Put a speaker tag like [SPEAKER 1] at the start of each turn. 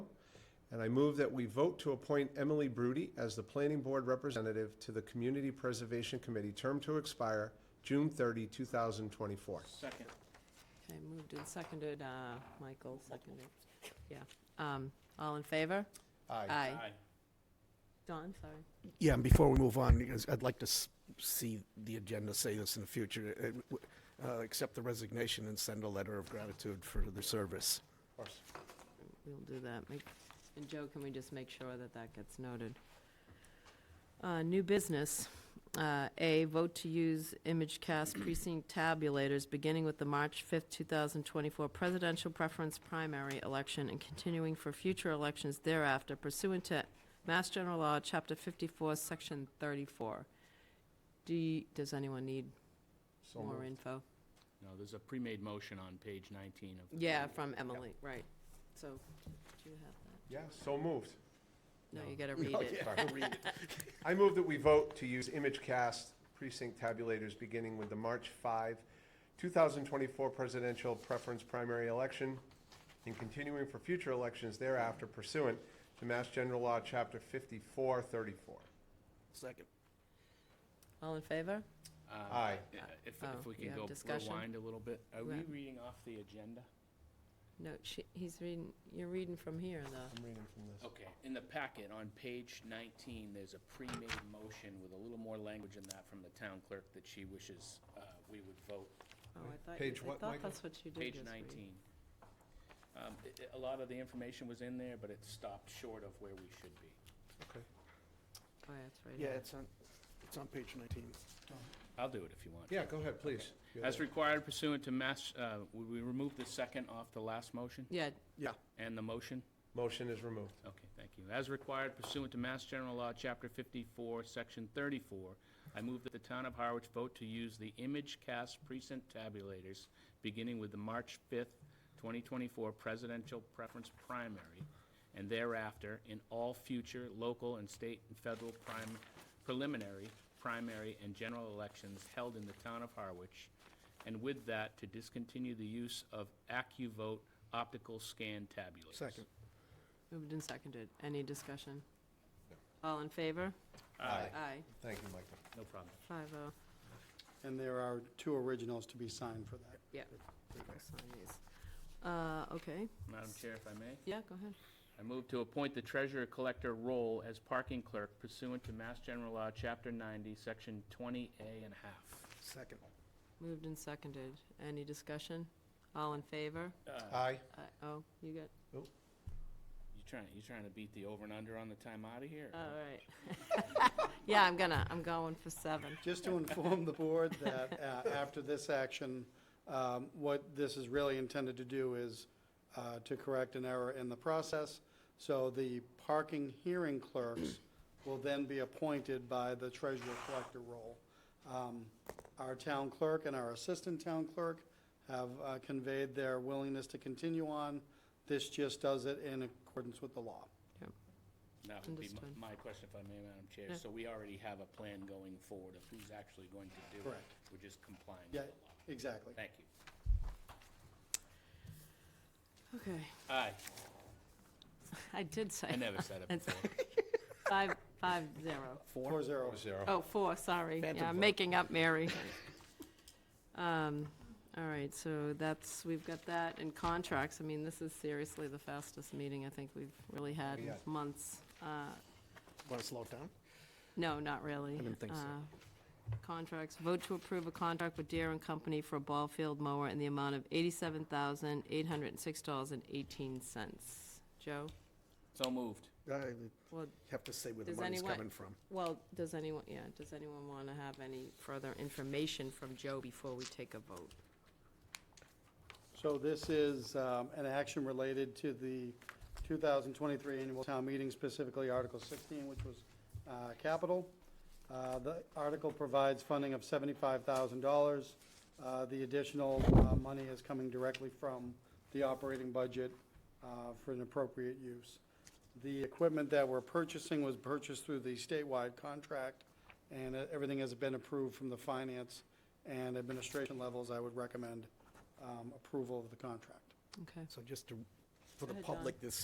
[SPEAKER 1] And I move that we vote to appoint Emily Brody as the Planning Board Representative to the Community Preservation Committee, term to expire June 30, 2024.
[SPEAKER 2] Second.
[SPEAKER 3] Okay, moved and seconded, uh, Michael seconded, yeah. Um, all in favor? Aye. Don, sorry.
[SPEAKER 4] Yeah, and before we move on, because I'd like to s- see the agenda say this in the future, uh, w- uh, accept the resignation and send a letter of gratitude for the service.
[SPEAKER 1] Of course.
[SPEAKER 3] We'll do that. Make- And Joe, can we just make sure that that gets noted? Uh, New business. Uh, A, vote to use ImageCast precinct tabulators, beginning with the March 5th, 2024 presidential preference primary election and continuing for future elections thereafter pursuant to Mass General Law, Chapter 54, Section 34. Do, you- does anyone need
[SPEAKER 1] So
[SPEAKER 3] more
[SPEAKER 1] moved.
[SPEAKER 3] info?
[SPEAKER 2] No, there's a pre-made motion on page 19 of. the-
[SPEAKER 3] Yeah, from Emily, right. So, do you have
[SPEAKER 1] Yeah, so moved.
[SPEAKER 3] that? No, you
[SPEAKER 2] No.
[SPEAKER 3] gotta read
[SPEAKER 1] Oh,
[SPEAKER 3] it.
[SPEAKER 1] yeah, I'll read it. I move that we vote to use ImageCast precinct tabulators beginning with the March 5, 2024 presidential preference primary election and continuing for future elections thereafter pursuant to Mass General Law, Chapter 5434.
[SPEAKER 4] Second.
[SPEAKER 3] All in favor?
[SPEAKER 2] Uh,
[SPEAKER 1] Aye.
[SPEAKER 2] If,
[SPEAKER 3] Oh,
[SPEAKER 2] if we
[SPEAKER 3] you
[SPEAKER 2] can
[SPEAKER 3] have
[SPEAKER 2] go
[SPEAKER 3] discussion?
[SPEAKER 2] rewind a little bit. Are we
[SPEAKER 3] Yeah.
[SPEAKER 2] reading off the agenda?
[SPEAKER 3] No, she, he's reading, you're reading from here, though.
[SPEAKER 1] I'm reading from this.
[SPEAKER 2] Okay, in the packet, on page 19, there's a pre-made motion with a little more language in that from the town clerk that she wishes uh, we would vote.
[SPEAKER 3] Oh, I thought, you-
[SPEAKER 1] Page
[SPEAKER 3] I
[SPEAKER 1] what,
[SPEAKER 3] thought
[SPEAKER 1] Michael?
[SPEAKER 3] that's what you did
[SPEAKER 2] Page
[SPEAKER 3] just read.
[SPEAKER 2] 19. Um, i- i- A lot of the information was in there, but it stopped short of where we should be.
[SPEAKER 1] Okay.
[SPEAKER 3] Oh, yeah, that's right.
[SPEAKER 4] Yeah,
[SPEAKER 3] here.
[SPEAKER 4] it's on, it's on page 19.
[SPEAKER 3] Oh.
[SPEAKER 2] I'll do it if you want.
[SPEAKER 1] Yeah, go ahead, please. You're
[SPEAKER 2] As
[SPEAKER 1] there.
[SPEAKER 2] required pursuant to Mass, uh, would we remove the second off the last motion
[SPEAKER 3] Yeah,
[SPEAKER 4] Yeah,
[SPEAKER 2] and the motion?
[SPEAKER 1] Motion is removed.
[SPEAKER 2] Okay, thank you. As required pursuant to Mass General Law, Chapter 54, Section 34, I move that the town of Harwich vote to use the image cast precinct tabulators beginning with the March 5th, 2024 presidential preference primary and thereafter in all future local and state and federal prim- preliminary, primary, and general elections held in the town of Harwich, and with that, to discontinue the use of AccuVote optical scan tabulators.
[SPEAKER 4] second.
[SPEAKER 3] moved and seconded. Any discussion? All in favor?
[SPEAKER 1] Aye.
[SPEAKER 3] Aye,
[SPEAKER 1] Thank you, Michael.
[SPEAKER 2] No problem.
[SPEAKER 3] five oh.
[SPEAKER 5] And there are two originals to be signed for that.
[SPEAKER 3] Yeah. we will sign these. Uh, okay,
[SPEAKER 2] Madam Chair, if I may,
[SPEAKER 3] yeah, go ahead.
[SPEAKER 2] I move to appoint the treasurer collector role as parking clerk pursuant to Mass General Law, Chapter 90, Section 20A and a half.
[SPEAKER 4] Second.
[SPEAKER 3] Moved and seconded. Any discussion? All in favor?
[SPEAKER 1] Aye.
[SPEAKER 3] Aye. Oh, you got,
[SPEAKER 2] Uh, You trying, you trying to beat the over and under on the time out of here?
[SPEAKER 3] all right. Yeah, I'm gonna, I'm going for seven.
[SPEAKER 5] Just to inform the board that uh, after this action, um, what this is really intended to do is uh, to correct an error in the process. So the parking hearing clerks will then be appointed by the treasurer collector role. Um, Our town clerk and our assistant town clerk have uh, conveyed their willingness to continue on. This just does it in accordance with the law.
[SPEAKER 2] That would be my-
[SPEAKER 3] Understood.
[SPEAKER 2] my question, if I may, Madam Chair.
[SPEAKER 3] Yeah.
[SPEAKER 2] So we already have a plan going forward of who's actually going to do it.
[SPEAKER 5] Correct.
[SPEAKER 2] We're just complying with the
[SPEAKER 5] Yeah,
[SPEAKER 2] law.
[SPEAKER 5] exactly.
[SPEAKER 2] Thank you.
[SPEAKER 3] Okay,
[SPEAKER 2] Aye,
[SPEAKER 3] I did say
[SPEAKER 2] I never said it
[SPEAKER 3] That's-
[SPEAKER 2] before.
[SPEAKER 3] five, five zero.
[SPEAKER 5] Four zero.
[SPEAKER 1] Zero.
[SPEAKER 3] Oh, four, sorry. Yeah, I'm making up, Mary. Um, All right, so that's, we've got that and contracts. I mean, this is seriously the fastest meeting I think we've really had in
[SPEAKER 1] Yeah.
[SPEAKER 3] months. Uh,
[SPEAKER 4] Want to slow it down?
[SPEAKER 3] No, not really.
[SPEAKER 4] I didn't think so.
[SPEAKER 3] Uh, Contracts, vote to approve a contract with Deere and Company for a ball field mower in the amount of eighty-seven thousand, eight hundred and six dollars and eighteen cents. Joe?
[SPEAKER 2] So moved.
[SPEAKER 4] I
[SPEAKER 3] Well,
[SPEAKER 4] have to say where the
[SPEAKER 3] Does
[SPEAKER 4] money's
[SPEAKER 3] anyone-
[SPEAKER 4] coming from.
[SPEAKER 3] Well, does anyone, yeah, does anyone want to have any further information from Joe before we take a vote?
[SPEAKER 5] So this is um, an action related to the 2023 annual town meeting, specifically Article 16, which was uh, capital. Uh, The article provides funding of $75,000. Uh, The additional uh, money is coming directly from the operating budget uh, for an appropriate use. The equipment that we're purchasing was purchased through the statewide contract, and uh, everything has been approved from the finance and administration levels. I would recommend um, approval of the contract.
[SPEAKER 3] Okay.
[SPEAKER 4] So just to, for the
[SPEAKER 3] ahead, Don.
[SPEAKER 4] public, this